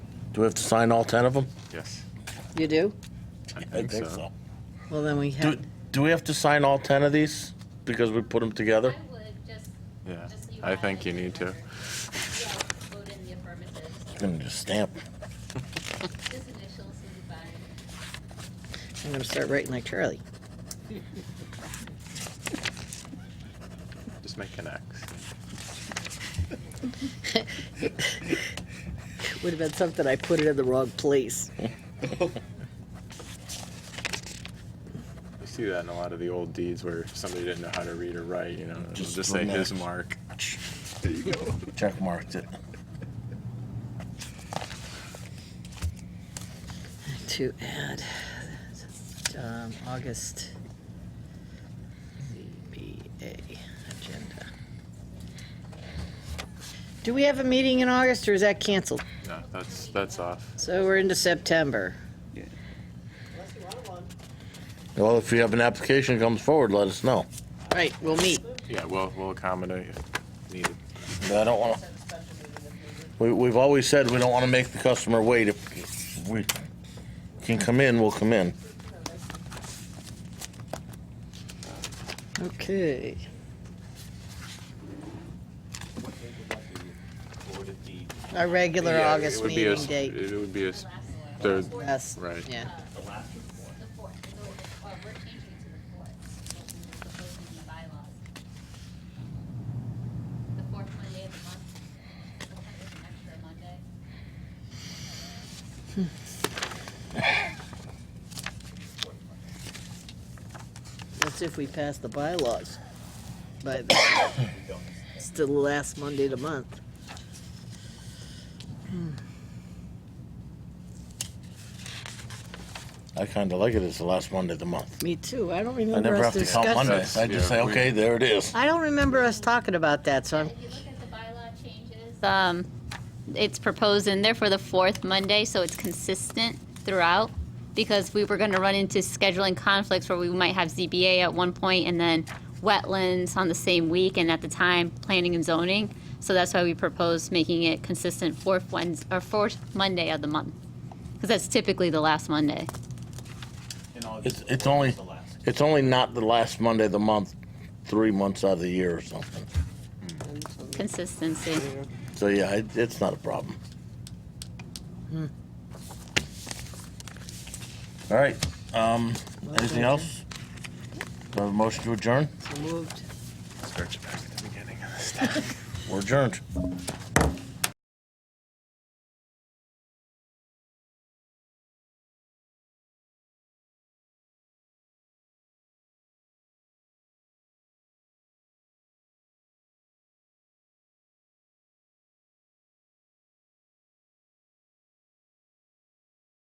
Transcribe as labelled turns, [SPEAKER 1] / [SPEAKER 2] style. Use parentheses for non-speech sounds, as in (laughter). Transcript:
[SPEAKER 1] Do we have to sign all 10 of them?
[SPEAKER 2] Yes.
[SPEAKER 3] You do?
[SPEAKER 1] I think so.
[SPEAKER 3] Well, then we
[SPEAKER 1] Do,
[SPEAKER 3] have,
[SPEAKER 1] do we have to sign all 10 of these because we put them together?
[SPEAKER 4] I would just,
[SPEAKER 2] Yeah,
[SPEAKER 4] just so you
[SPEAKER 2] I
[SPEAKER 4] have
[SPEAKER 2] think
[SPEAKER 4] it.
[SPEAKER 2] you need to.
[SPEAKER 4] Yeah, vote in the affirmative, so
[SPEAKER 1] And just stamp.
[SPEAKER 4] just initials and sign.
[SPEAKER 3] I'm going to start writing like Charlie.
[SPEAKER 2] Just make an X.
[SPEAKER 3] Would have been something I put it in the wrong (laughs) place.
[SPEAKER 2] You see that in a lot of the old deeds where somebody didn't know how to read or write, you know, it'll
[SPEAKER 1] Just
[SPEAKER 2] just, say
[SPEAKER 1] an
[SPEAKER 2] his
[SPEAKER 1] X.
[SPEAKER 2] mark.
[SPEAKER 1] Check marked it.
[SPEAKER 3] To add, um, August ZBA agenda. Do we have a meeting in August or is that canceled?
[SPEAKER 2] No, that's that's off.
[SPEAKER 3] So we're into September.
[SPEAKER 1] Well, if you have an application that comes forward, let us know.
[SPEAKER 3] Right, we'll meet.
[SPEAKER 2] Yeah, we'll we'll accommodate if needed.
[SPEAKER 1] I don't want to. We, we've always said we don't want to make the customer wait. If we can come in, we'll come in.
[SPEAKER 3] Okay. Our regular
[SPEAKER 2] Yeah,
[SPEAKER 3] August
[SPEAKER 2] it would be a
[SPEAKER 3] meeting
[SPEAKER 2] s-
[SPEAKER 3] date.
[SPEAKER 2] It would be a s- third.
[SPEAKER 3] Yes,
[SPEAKER 2] Right.
[SPEAKER 3] yeah.
[SPEAKER 4] The fourth, the, or we're changing it to the fourth, what we were proposing in the bylaws. The fourth Monday of the month, we'll have an extra Monday.
[SPEAKER 3] That's if we pass the bylaws. But
[SPEAKER 1] (coughs)
[SPEAKER 3] it's the last Monday of the month.
[SPEAKER 1] I kind of like it. It's the last Monday of the month.
[SPEAKER 3] Me too. I don't
[SPEAKER 1] I
[SPEAKER 3] remember
[SPEAKER 1] never
[SPEAKER 3] us
[SPEAKER 1] have to count
[SPEAKER 3] discussing.
[SPEAKER 1] Mondays. I just
[SPEAKER 2] Yeah,
[SPEAKER 1] say,
[SPEAKER 2] we-
[SPEAKER 1] okay, there it is.
[SPEAKER 3] I don't remember us talking about that, so I'm,
[SPEAKER 4] If you look at the bylaw changes, um, it's proposed in there for the fourth Monday, so it's consistent throughout. Because we were gonna run into scheduling conflicts where we might have ZBA at one point and then wetlands on the same week and at the time, planning and zoning. So that's why we proposed making it consistent fourth Wednesday, or fourth Monday of the month. Cause that's typically the last Monday.
[SPEAKER 1] It's, it's only, it's only not the last Monday of the month, three months out of the year or something.
[SPEAKER 4] Consistency.
[SPEAKER 1] So yeah, it, it's not a problem. All right, um, anything else? Do I have a motion to adjourn?
[SPEAKER 3] so moved.
[SPEAKER 2] Start you back at the beginning of this.
[SPEAKER 1] We're adjourned.